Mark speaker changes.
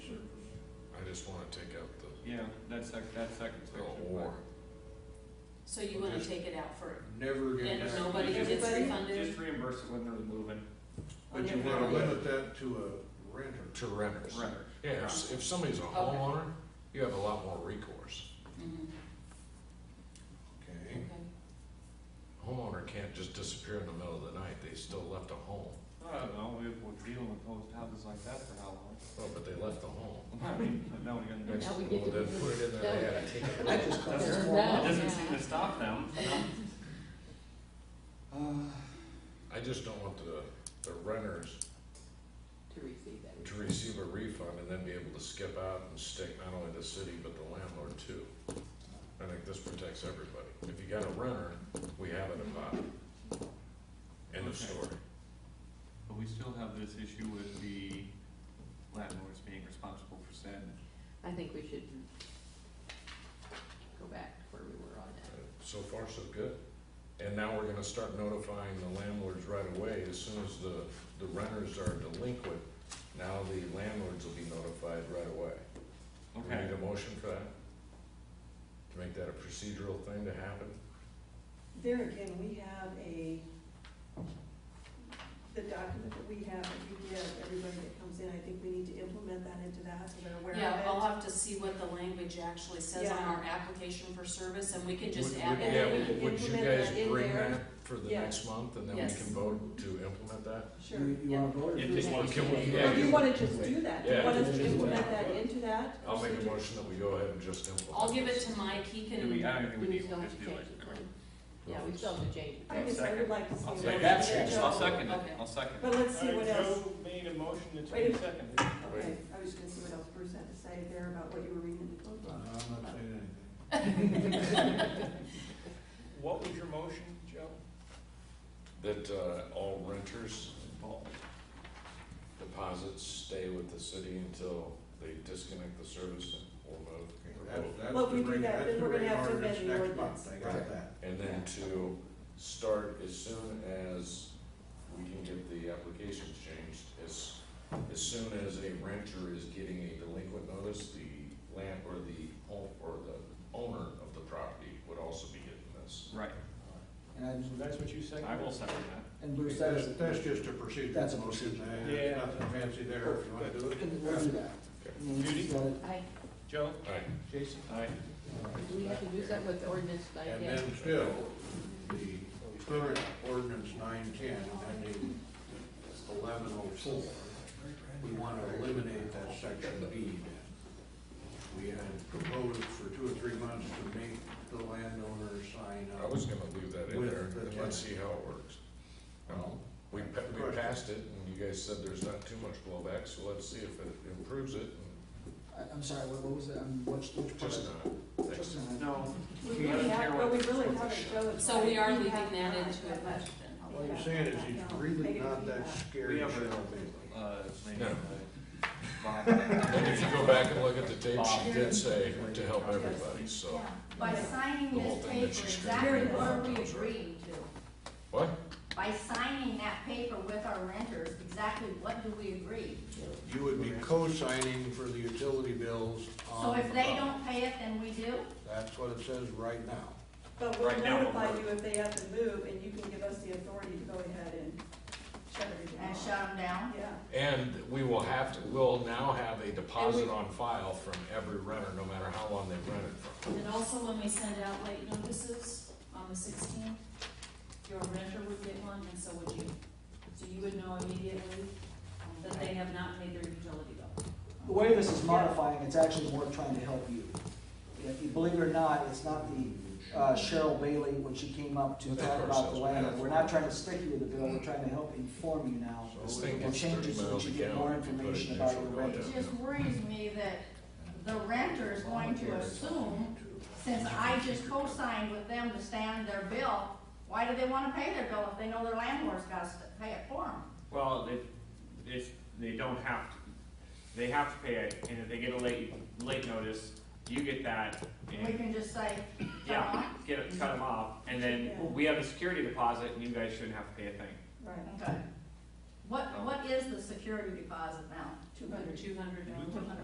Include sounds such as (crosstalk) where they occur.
Speaker 1: yeah, that sec, that second
Speaker 2: Oh,
Speaker 1: section. but-
Speaker 2: Or
Speaker 3: So you wanna take it out for,
Speaker 2: never get
Speaker 3: and
Speaker 2: back.
Speaker 3: if nobody
Speaker 1: Just-
Speaker 3: gets
Speaker 4: Everybody?
Speaker 3: refunded?
Speaker 1: Just reimburse it when they're moving,
Speaker 2: But you
Speaker 3: Okay.
Speaker 2: wanna limit that
Speaker 5: to a renter.
Speaker 2: to renters.
Speaker 1: renters.
Speaker 2: Yeah, if, if somebody's a homeowner, you have a lot more recourse.
Speaker 3: Mhm,
Speaker 2: Okay.
Speaker 3: okay.
Speaker 2: Homeowner can't just disappear in the middle of the night, they still left a home.
Speaker 1: I don't know, we, we're dealing with those houses like that for how long? (laughs)
Speaker 2: Well, Oh, but they left the home.
Speaker 1: I mean, now we got
Speaker 2: Next,
Speaker 4: Now we
Speaker 2: well,
Speaker 4: get to
Speaker 2: then put it in there, they had to take
Speaker 4: (laughs)
Speaker 2: it.
Speaker 4: I just
Speaker 1: call it
Speaker 4: Turn
Speaker 1: formal. It
Speaker 5: Uh,
Speaker 4: down.
Speaker 1: doesn't
Speaker 3: Yeah.
Speaker 1: seem to stop
Speaker 6: (laughs)
Speaker 1: them. Uh,
Speaker 2: I just don't want the, the renters
Speaker 4: to receive that.
Speaker 2: to receive a refund and then be able to skip out and stick not only the city, but the landlord too. I think this protects everybody. If you got a renter, we have it about End of
Speaker 1: Okay.
Speaker 2: story.
Speaker 1: But we still have this issue with the landlords being responsible for said.
Speaker 4: I think we should go back to where we were on
Speaker 2: Uh,
Speaker 4: that.
Speaker 2: So far, so good. And now we're gonna start notifying the landlords right away, as soon as the, the renters are delinquent, now the landlords will be notified right away. Do we Need a motion for that? To make that a procedural thing to happen?
Speaker 6: There again, we have a, the document that we have, that we give everybody that comes in, I think we need to implement that into that, so they're aware of it.
Speaker 3: Yeah, I'll have to see what the language actually says on our application for service, and we can just
Speaker 2: Would-
Speaker 3: add
Speaker 2: would-
Speaker 3: that
Speaker 2: yeah, would-
Speaker 3: in.
Speaker 2: Would you
Speaker 6: Implement
Speaker 2: guys
Speaker 6: that in
Speaker 2: bring
Speaker 6: there.
Speaker 2: that for the
Speaker 6: Yeah.
Speaker 2: next month, and then we
Speaker 3: Yes.
Speaker 2: can vote to implement that?
Speaker 6: Sure.
Speaker 5: You, you wanna vote or?
Speaker 1: If
Speaker 5: do
Speaker 1: they
Speaker 5: it?
Speaker 1: want
Speaker 2: Can we-
Speaker 1: to.
Speaker 2: yeah,
Speaker 6: Or do you wanna just do that? Do you
Speaker 2: Yeah.
Speaker 6: want us to implement that into that?
Speaker 2: I'll make a
Speaker 6: procedure?
Speaker 2: motion that we go ahead and just implement.
Speaker 3: I'll give it
Speaker 2: this.
Speaker 3: to Mike, he
Speaker 1: Do we,
Speaker 3: can,
Speaker 1: I don't think we
Speaker 4: We
Speaker 1: need,
Speaker 4: still
Speaker 1: we'll
Speaker 4: have
Speaker 1: just
Speaker 4: to
Speaker 1: do
Speaker 4: change
Speaker 1: it.
Speaker 4: the plan. Yeah, we still have to change
Speaker 6: I
Speaker 4: it.
Speaker 6: guess I would like to see.
Speaker 1: I'll
Speaker 6: what
Speaker 1: second.
Speaker 6: else is
Speaker 2: That's-
Speaker 6: there.
Speaker 1: I'll second it,
Speaker 3: Okay.
Speaker 1: I'll second it.
Speaker 6: But let's see what else,
Speaker 1: made a motion, it's
Speaker 6: Wait a-
Speaker 1: seconded.
Speaker 6: okay, I was gonna see what else Bruce had to say there about what you were reading in the code
Speaker 5: No,
Speaker 6: book.
Speaker 5: I'm not saying anything.
Speaker 1: (laughs) What was your motion, Joe?
Speaker 2: That, uh, all renters, all deposits stay with the city until they disconnect the service or move. or
Speaker 5: That's,
Speaker 2: vote.
Speaker 5: that's
Speaker 6: Well,
Speaker 5: to
Speaker 6: if we do
Speaker 5: bring-
Speaker 6: that,
Speaker 5: that's
Speaker 6: then
Speaker 5: to
Speaker 6: we're gonna
Speaker 5: bring
Speaker 6: have to
Speaker 5: ordinance
Speaker 6: amend the
Speaker 5: next
Speaker 6: ordinance.
Speaker 5: month. I got
Speaker 2: Right.
Speaker 5: that.
Speaker 2: And then to start as soon as we can get the applications changed, as, as soon as a renter is getting a delinquent notice, the land, or the home, or the owner of the property would also be getting this.
Speaker 1: Right,
Speaker 5: And I-
Speaker 7: That's what you second?
Speaker 1: I will second that.
Speaker 7: And Bruce, that
Speaker 5: That's,
Speaker 7: is,
Speaker 5: that's just a procedural.
Speaker 7: That's a
Speaker 5: motion. Uh,
Speaker 7: procedure. Yeah.
Speaker 5: Nothing fancy there, if you wanna do it.
Speaker 7: we'll do that.
Speaker 2: Okay.
Speaker 7: And then
Speaker 1: Judy?
Speaker 7: she's got it.
Speaker 4: I,
Speaker 1: Joe?
Speaker 2: Alright,
Speaker 7: Jason?
Speaker 1: Aye.
Speaker 7: All right.
Speaker 4: do we have to do something with the ordinance like
Speaker 5: And
Speaker 4: that?
Speaker 5: then still, the current ordinance nine ten, and then the eleven oh four, we wanna eliminate that section B then. We had proposed for two or three months to make the landowner sign
Speaker 2: I
Speaker 5: up.
Speaker 2: was gonna leave that in
Speaker 5: With
Speaker 2: there,
Speaker 5: the
Speaker 2: and
Speaker 5: tenant.
Speaker 2: let's see how it works. Um,
Speaker 5: Well,
Speaker 2: We, pa- we passed it, and you guys said there's not too much blowback, so let's see if it improves it, and
Speaker 7: I, I'm sorry, what what was that, um, which, which part?
Speaker 2: just not. Thanks.
Speaker 7: Just not.
Speaker 1: No.
Speaker 6: We really have, but we really haven't shown.
Speaker 3: so we are
Speaker 6: We
Speaker 3: leaving
Speaker 6: have
Speaker 3: that
Speaker 6: not
Speaker 3: into
Speaker 6: done
Speaker 3: a budget then.
Speaker 5: What you're saying is he's really not that
Speaker 1: We
Speaker 5: scary,
Speaker 1: have
Speaker 5: Cheryl
Speaker 1: a-
Speaker 5: Bailey.
Speaker 1: Uh, maybe,
Speaker 2: No.
Speaker 1: uh, Bob.
Speaker 2: And if you go back and look at the tape, she did say to help everybody, so.
Speaker 8: By signing
Speaker 2: The whole
Speaker 8: this
Speaker 2: thing
Speaker 8: paper,
Speaker 2: that she's
Speaker 8: exactly
Speaker 2: created.
Speaker 8: what are we agreeing to?
Speaker 2: What?
Speaker 8: By signing that paper with our renters, exactly what do we agree?
Speaker 5: You would be co-signing for the utility bills
Speaker 8: So
Speaker 5: on the
Speaker 8: if
Speaker 2: Um,
Speaker 8: they
Speaker 5: property.
Speaker 8: don't pay it, then we do?
Speaker 5: That's what it says right now.
Speaker 6: But we'll
Speaker 1: Right now, we'll
Speaker 6: notify
Speaker 1: work.
Speaker 6: you if they have to move, and you can give us the authority to go ahead and shut everything
Speaker 8: And
Speaker 6: off.
Speaker 8: shut them down?
Speaker 6: Yeah,
Speaker 2: And we will have to, we'll now have a deposit on file from every renter, no matter how long they've rented from.
Speaker 3: And also when we send out late notices on the sixteenth, your renter would get one and so would you. So you would know immediately um, that they have not paid their utility bill.
Speaker 7: The way this is modifying, it's actually more trying to help you. If you believe it or not, it's not the uh, Cheryl Bailey when she came up to
Speaker 2: Of
Speaker 7: talk
Speaker 2: course,
Speaker 7: about
Speaker 2: that's
Speaker 7: the land.
Speaker 2: what
Speaker 7: We're not trying to stick you with the bill, we're trying to help inform you now.
Speaker 2: This thing
Speaker 7: And
Speaker 2: gets
Speaker 7: change
Speaker 2: thirty
Speaker 7: it so that
Speaker 2: miles a
Speaker 7: you get
Speaker 2: gallon.
Speaker 7: more
Speaker 2: if you put it
Speaker 7: information
Speaker 2: in
Speaker 7: about
Speaker 2: neutral,
Speaker 7: your
Speaker 2: yeah.
Speaker 7: renters.
Speaker 8: It just worries me that the renter is going to assume, since I just co-signed with them to stand their bill, why do they wanna pay their bill if they know their landlord's gotta st- pay it for them?
Speaker 9: Well, if, if they don't have to, they have to pay it, and if they get a late, late notice, you get that,
Speaker 8: We
Speaker 9: and,
Speaker 8: can just say,
Speaker 9: yeah, get, it- cut them off, and then
Speaker 6: Yeah.
Speaker 9: we have a security deposit, and you guys shouldn't have to pay a thing.
Speaker 6: right,
Speaker 8: okay. What, what is the security deposit now?
Speaker 6: two hundred.
Speaker 3: Two hundred dollars.